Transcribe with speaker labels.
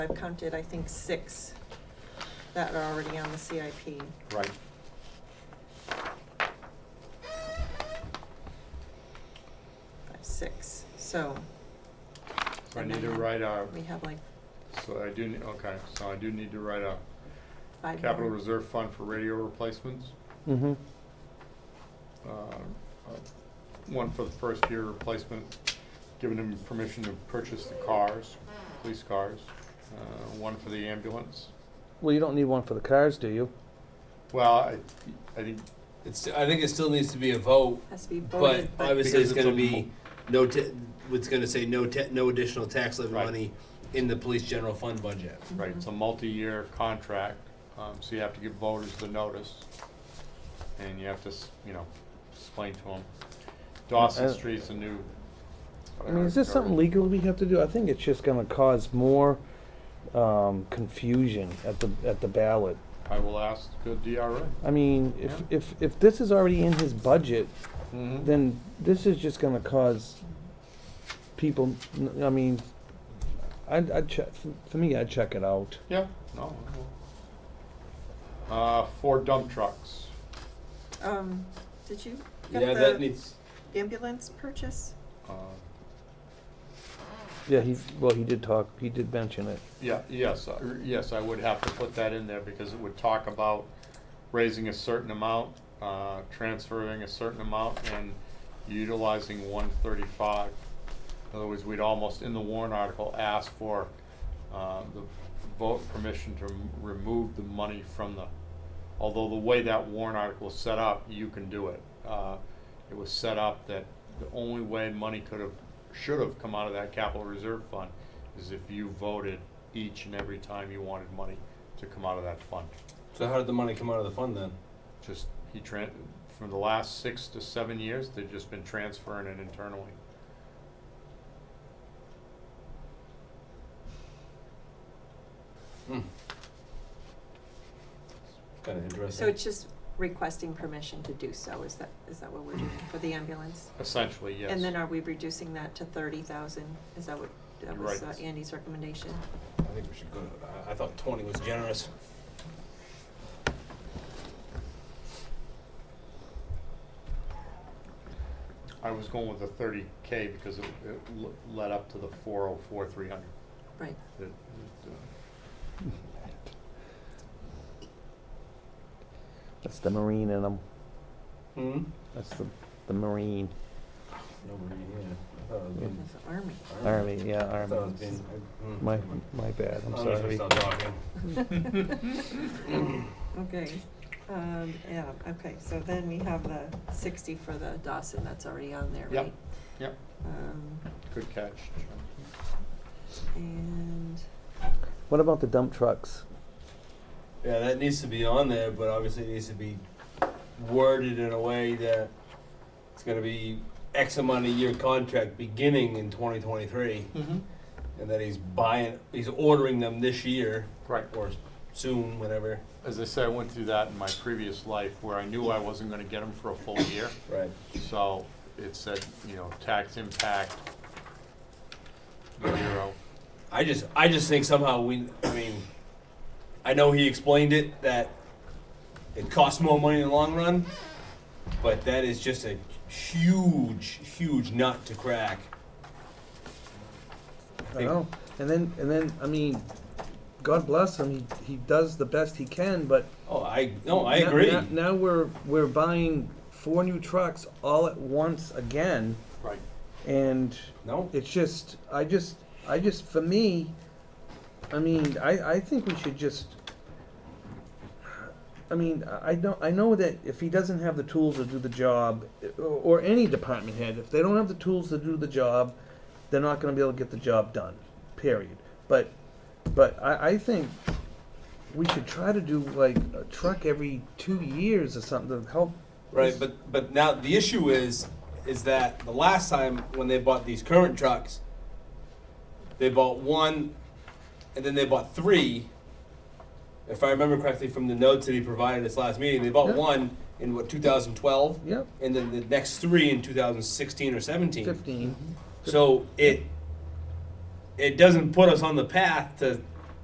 Speaker 1: I've counted, I think, six that are already on the CIP.
Speaker 2: Right.
Speaker 1: Five, six, so.
Speaker 2: So I need to write a,
Speaker 1: We have like
Speaker 2: so I do, ne- okay, so I do need to write a
Speaker 1: five.
Speaker 2: capital
Speaker 1: more.
Speaker 2: reserve fund for radio replacements.
Speaker 3: Mm-hmm.
Speaker 2: um, uh, One for the first year replacement, giving them permission to purchase the cars, police cars. uh, One for the ambulance.
Speaker 3: Well, you don't need one for the cars, do you?
Speaker 2: Well, I, I think,
Speaker 4: It's, I think it still needs to be a vote,
Speaker 1: Has to be
Speaker 4: but
Speaker 1: voted, but
Speaker 4: obviously
Speaker 2: Because
Speaker 4: it's
Speaker 2: it's
Speaker 4: gonna
Speaker 2: a
Speaker 4: be no, ta- it's gonna say no, ta- no additional tax levy
Speaker 2: Right.
Speaker 4: money in the police general fund budget.
Speaker 2: right, it's a multi-year contract, um, so you have to give voters the notice. And you have to, s- you know, explain to them. Dawson
Speaker 3: Uh,
Speaker 2: Street's a new.
Speaker 3: I mean, is this something
Speaker 2: legal?
Speaker 3: legal we have to do? I think it's just gonna cause more, um, confusion at the, at the ballot.
Speaker 2: I will ask the DRA.
Speaker 3: I mean, if,
Speaker 2: Yeah.
Speaker 3: if, if this is already in his budget,
Speaker 2: Mhm.
Speaker 3: then this is just gonna cause people, n- I mean, I'd, I'd check, for me, I'd check it out.
Speaker 2: Yeah, no. no. Uh, four dump trucks.
Speaker 1: um, did you
Speaker 4: Yeah,
Speaker 1: get
Speaker 4: that
Speaker 1: the
Speaker 4: needs,
Speaker 1: ambulance purchase?
Speaker 2: Uh,
Speaker 3: Yeah, he, well, he did talk, he did mention it.
Speaker 2: Yeah, yes, I- yes, I would have to put that in there because it would talk about raising a certain amount, uh, transferring a certain amount and utilizing one thirty-five. In other words, we'd almost, in the warrant article, ask for, uh, the vote permission to m- remove the money from the, although the way that warrant article is set up, you can do it. Uh, It was set up that the only way money could have, should have come out of that capital reserve fund is if you voted each and every time you wanted money to come out of that fund.
Speaker 4: so how did the money come out of the fund then?
Speaker 2: Just, he tran, for the last six to seven years, they've just been transferring it internally.
Speaker 4: Kinda
Speaker 1: So
Speaker 4: interesting.
Speaker 1: it's just requesting permission to do so, is that, is that what we're doing for the ambulance?
Speaker 2: Essentially, yes.
Speaker 1: And then are we reducing that to thirty thousand? Is that what, that
Speaker 2: You're
Speaker 1: was uh,
Speaker 2: right.
Speaker 1: Andy's recommendation?
Speaker 4: I think we should go, to- I, I thought twenty was generous.
Speaker 2: I was going with the thirty K because it, it l- led up to the four oh four, three hundred. uh,
Speaker 1: Right,
Speaker 3: That's the marine in him.
Speaker 4: Hmm?
Speaker 3: That's the, the marine,
Speaker 4: Nobody, yeah, I thought it was being.
Speaker 1: that's the army.
Speaker 3: army, yeah,
Speaker 4: I thought it was
Speaker 3: army.
Speaker 4: being. hmm.
Speaker 3: My, my bad, I'm
Speaker 4: I'm gonna
Speaker 3: sorry.
Speaker 4: stop talking.
Speaker 1: Okay, um, yeah, okay, so then we have the sixty for the Dawson, that's already on there,
Speaker 2: Yep.
Speaker 1: right?
Speaker 2: Yep,
Speaker 1: Um,
Speaker 2: good catch.
Speaker 1: and,
Speaker 3: What about the dump trucks?
Speaker 4: Yeah, that needs to be on there, but obviously it needs to be worded in a way that it's gonna be X amount of year contract beginning in twenty twenty-three,
Speaker 2: Mm-hmm.
Speaker 4: and that he's buying, he's ordering them this year,
Speaker 2: Right,
Speaker 4: or soon, whenever.
Speaker 2: as I said, I went through that in my previous life where I knew I wasn't gonna get them for a full year.
Speaker 4: Right.
Speaker 2: So it said, you know, tax impact zero.
Speaker 4: I just, I just think somehow we, I mean, I know he explained it, that it costs more money in the long run, but that is just a huge, huge nut to crack.
Speaker 3: I know. And then, and then, I mean, God bless him. He he does the best he can, but
Speaker 4: Oh, I, no, I
Speaker 3: now-
Speaker 4: agree.
Speaker 3: Now, now we're we're buying four new trucks all at once again,
Speaker 2: Right.
Speaker 3: and
Speaker 4: No,
Speaker 3: it's just, I just, I just, for me, I mean, I I think we should just. I mean, I I don't. I know that if he doesn't have the tools to do the job, or, or any department head, if they don't have the tools to do the job, they're not going to be able to get the job done. Period. But, but I, I think we should try to do like a truck every two years or something to help.
Speaker 4: Right, but but now the issue is is that the last time when they bought these current trucks, they bought one, and then they bought three. If I remember correctly from the notes that he provided us last meeting, they bought
Speaker 3: Yeah.
Speaker 4: one in what 2012,
Speaker 3: Yep.
Speaker 4: and then the next three in 2016 or 17.
Speaker 3: Fifteen.
Speaker 4: So it it doesn't put us on the path to